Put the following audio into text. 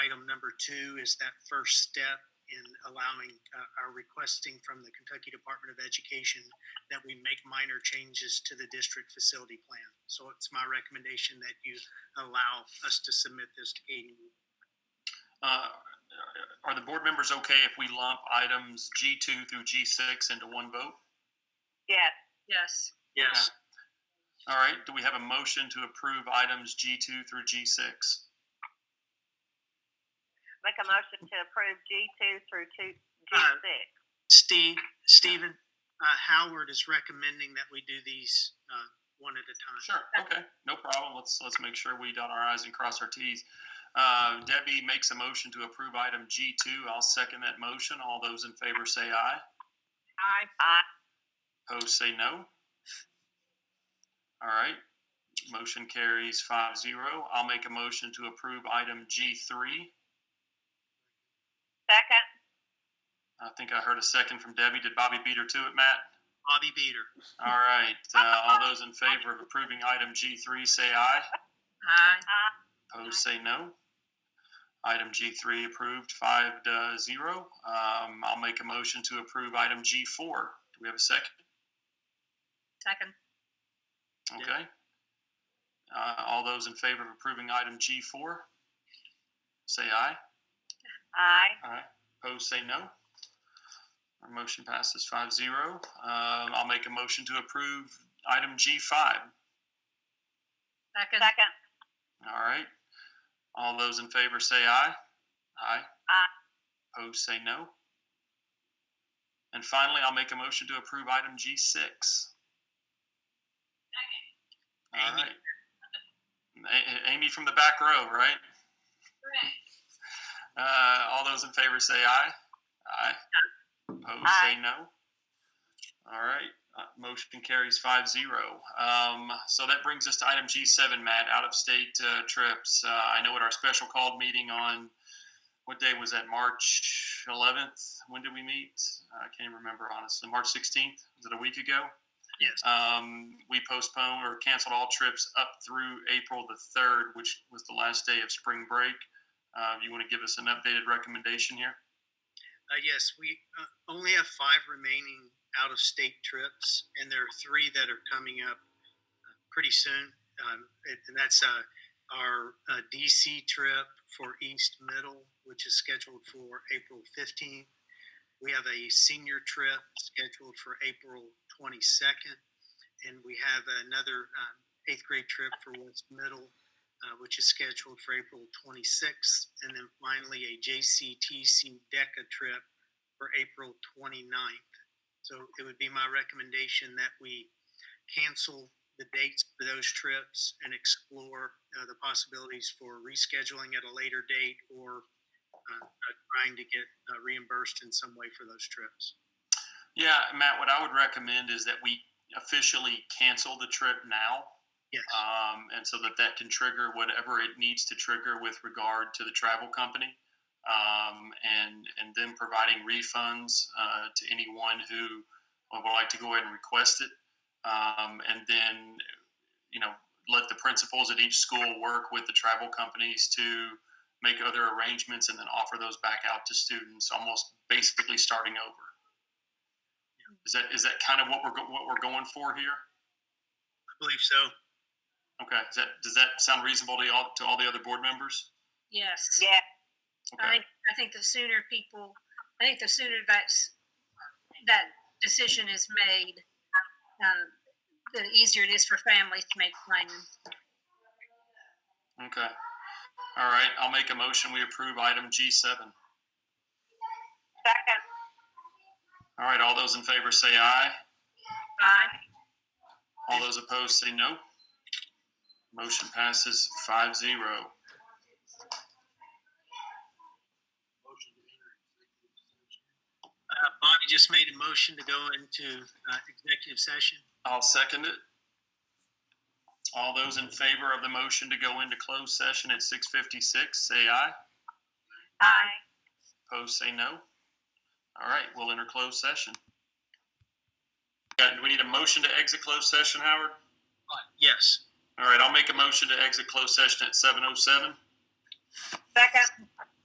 Item number two is that first step in allowing, uh, our requesting from the Kentucky Department of Education that we make minor changes to the district facility plan. So it's my recommendation that you allow us to submit this to Katie. Uh, Are the board members okay if we lump items G2 through G6 into one vote? Yes. Yes. Yes. All right, do we have a motion to approve items G2 through G6? Make a motion to approve G two through two, G Uh, Aye. six. Steve, Stephen, uh, Howard is recommending that we do these, uh, one at a time. Sure, okay, no problem. Let's, let's make sure we dot our i's and cross our t's. Uh, Debbie makes a motion to approve item G2. I'll second that motion. All those in favor say aye. Aye. Aye. Opposed, say no. All right, motion carries five zero. I'll make a motion to approve item G3. Second. I think I heard a second from Debbie. Did Bobby beat her to it, Matt? Bobby Beater. All right. Uh, all those in favor of approving item G3 say aye. Aye. Aye. Opposed say no. Item G3 approved, five to zero. Um, I'll make a motion to approve item G4. Do we have a second? Second. Okay. Uh, all those in favor of approving item G4 say aye. Aye. Aye. Opposed, say no. Our motion passes five zero. Um, I'll make a motion to approve item G five. Second. Second. All right. All those in favor say aye. Aye. Aye. Opposed, say no. And finally, I'll make a motion to approve item G six. All Amy. right. A- A- Amy from the back row, right? Uh, all those in favor say aye. Aye. Opposed, Aye. say no. All right, uh, motion carries five zero. Um, so that brings us to item G seven, Matt, out-of-state, uh, trips. Uh, I know at our special called meeting on, what day was that, March eleventh? When did we meet? I can't even remember honestly, March sixteenth, was it a week ago? Yes. Um, we postponed or canceled all trips up through April the third, which was the last day of spring break. Uh, you want to give us an updated recommendation here? Uh, yes, we uh, only have five remaining out of state trips, and there are three that are coming up uh, pretty soon. Um, and, and that's uh, our uh, DC trip for East Middle, which is scheduled for April 15th. We have a senior trip scheduled for April 22nd, and we have another um, eighth grade trip for West Middle uh, which is scheduled for April 26th, and then finally a JCTC DECA trip for April 29th. So it would be my recommendation that we cancel the dates for those trips and explore uh, the possibilities for rescheduling at a later date or uh, uh, trying to get uh, reimbursed in some way for those trips. Yeah, Matt, what I would recommend is that we officially cancel the trip now. Yes. Um, and so that that can trigger whatever it needs to trigger with regard to the travel company. Um, and, and then providing refunds, uh, to anyone who uh, would like to go ahead and request it. Um, and then, you know, let the principals at each school work with the travel companies to make other arrangements and then offer those back out to students, almost basically starting over. Is that is that kind of what we're go- what we're going for here? I believe so. Okay. Is that does that sound reasonable to all to all the other board members? Yes. Yes. Okay. I think, I think the sooner people, I think the sooner that's, that decision is made, um, the easier it is for families to make plans. Okay. All right. I'll make a motion. We approve item G seven. Second. All right. All those in favor say aye. Aye. All those opposed say no. Motion passes five zero. Uh, Bonnie just made a motion to go into uh, executive session. I'll second it. All those in favor of the motion to go into closed session at six fifty six, say aye. Aye. Opposed, say no. All right, we'll enter closed session. Got- Do we need a motion to exit closed session, Howard? Yes. All right, I'll make a motion to exit closed session at seven oh seven. Second.